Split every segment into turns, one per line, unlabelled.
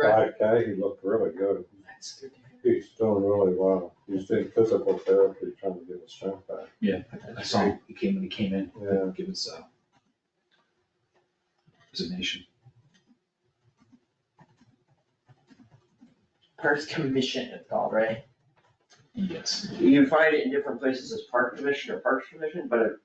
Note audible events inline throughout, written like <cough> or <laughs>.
five K, he looked really good.
That's good.
He's doing really well. He's doing physical therapy, trying to get his strength back.
Yeah, I- I saw him, he came, when he came in,
Yeah,
give his, uh, resignation.
Parks Commission, it's called, right?
Yes.
You can find it in different places as park commission or parks commission, but it-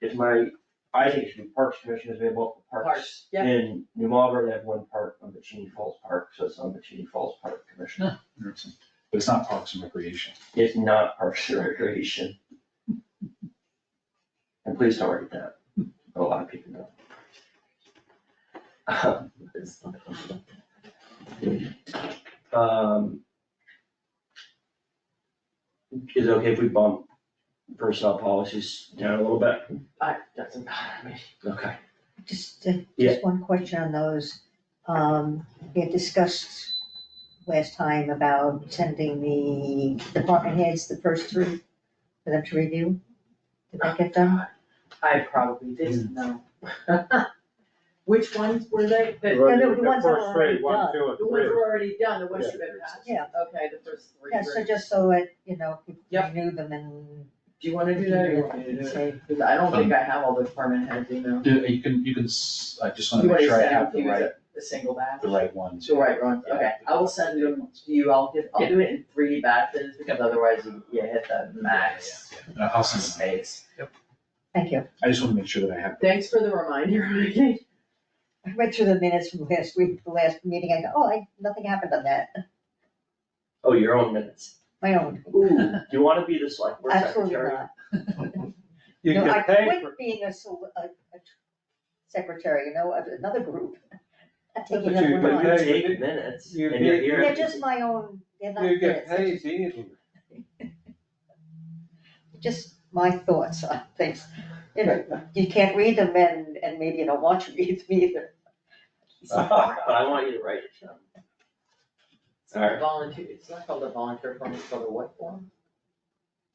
it's my, I think it should be parks commission, because we have multiple parks.
Parks, yeah.
In New Marlboro, they have one park on the Cheney Falls Park, so it's on the Cheney Falls Park Commission.
Interesting. But it's not Parks and Recreation.
It's not Parks and Recreation. And please don't write that, a lot of people know. Um, Um. Is it okay if we bump personnel policies down a little bit?
I, doesn't matter, me.
Okay.
Just, uh,
Yeah.
just one question on those. Um, we had discussed last time about sending the department heads the first three for them to review. Did that get done?
I probably didn't
Hmm.
know. <laughs> Which ones were they? The
Right. no, the ones that are
First three, one,
done.
two, and
the ones
three.
were already done, the ones should have been passed.
Yeah.
Okay, the first three.
Yeah,
were-
so just so it, you know, people
Yep.
knew them and.
Do you wanna do that or you want me to do it?
say,
Cause I don't think I have all the department heads email.
Yeah, You can, you can, s- I just wanna
You
make
already
sure I
sent
have
out
the
you
right,
the single batch.
the right ones.
The right ones, okay, I will send them to you, I'll give, I'll do it in three batches, because otherwise you, you hit the max
Yeah, yeah, yeah. I'll send them.
space.
Thank you.
I just wanna make sure that I have.
Thanks for the reminder, <laughs> Renee.
I read through the minutes from last week, the last meeting. I go, oh, I, nothing happened on that.
Oh, your own minutes.
My own.
<laughs>
Ooh, do you wanna be the select board
Absolutely
secretary?
not.
You
No, I
can pay for,
quit being a, sol- a, a secretary, you know, of another group. <laughs> I take
But
it up
you-
one
but
line.
But
Hey,
you
you-
take minutes and
you
you're
did-
here.
They're just my own, they're not
you get
minutes, they're
paid easily.
just my thoughts on things. You know, you can't read them and, and maybe you don't want to read them <laughs> either.
But I want you to write it down.
It's not a volunteer, it's not called a volunteer form, it's called a what form?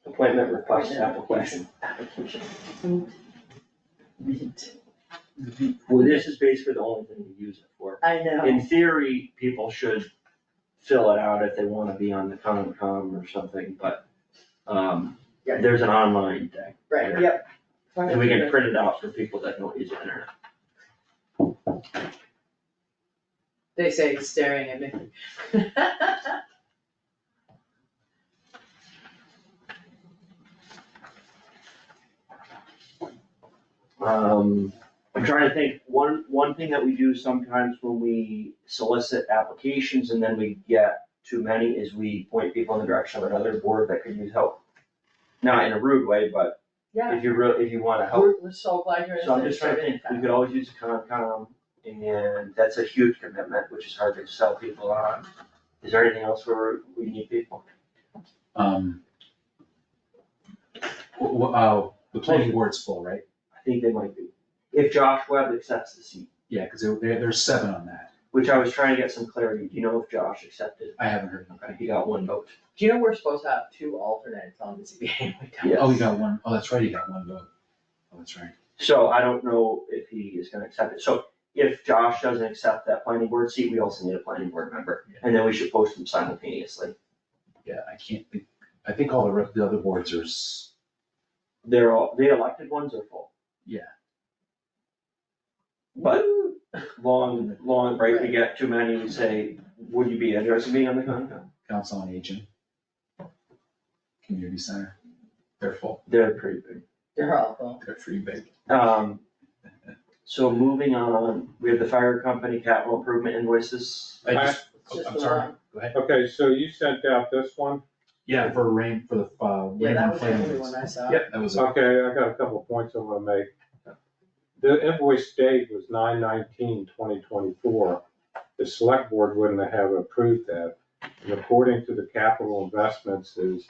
Appointment request application.
Application.
Mm-hmm.
Well, this is basically the only thing we use it for.
I know,
In theory, people should fill it out if they wanna be on the Concom or something, but, um,
Yeah.
there's an online thing.
right, yep.
And we can print it out for people that don't use the internet.
They say he's staring at me. <laughs>
Um, I'm trying to think, one, one thing that we do sometimes when we solicit applications and then we get too many is we point people in the direction of another board that could use help. Not in a rude way, but
Yeah,
if you real, if you wanna help,
we're, we're so glad you're.
Oh. so I'm just trying to think, we could always use a Concom, and that's a huge commitment, which is hard to sell people on. Is there anything else where we need people?
Um. wh- wh- uh, the planning board's full, right?
I think they might be, if Josh Webb accepts the seat,
Yeah, cause there, there, there's seven on that.
which I was trying to get some clarity, do you know if Josh accepted?
I haven't heard anything.
Okay, he got one vote.
Do you know we're supposed to have two alternates on the ZBA? <laughs> We don't.
Yeah.
Oh, you got one. Oh, that's right, you got one vote. Oh, that's right.
So I don't know if he is gonna accept it. So if Josh doesn't accept that planning board seat, we also need a planning board member. And then we should post them simultaneously.
Yeah, I can't think, I think all the, re- the other boards are, s-
They're all, the elected ones are full, but long, long break, we get too many, we say, would you be interested in being on the Concom?
council on aging. Community center. They're full,
They're pretty big.
They're awful.
they're pretty big.
Um, so moving on, we have the fire company capital improvement invoices.
I just,
It's just
Oh, I'm
the
sorry.
one.
go ahead.
Okay, so you sent out this one.
Yeah, for rain, for the, uh,
Yeah,
rain
that
and
was the
flame.
only one I saw.
Yep, that was, it.
Okay, I got a couple points I'm gonna make. The invoice date was nine nineteen twenty twenty-four. The select board wouldn't have approved that. And according to the capital investments is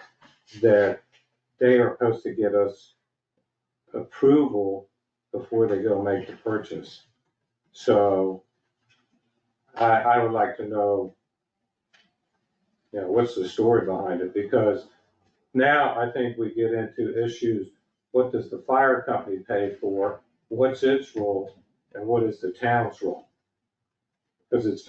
that they are supposed to get us approval before they go make the purchase. So I, I would like to know, you know, what's the story behind it? Because now I think we get into issues, what does the fire company pay for? What's its role and what is the town's role? Because it's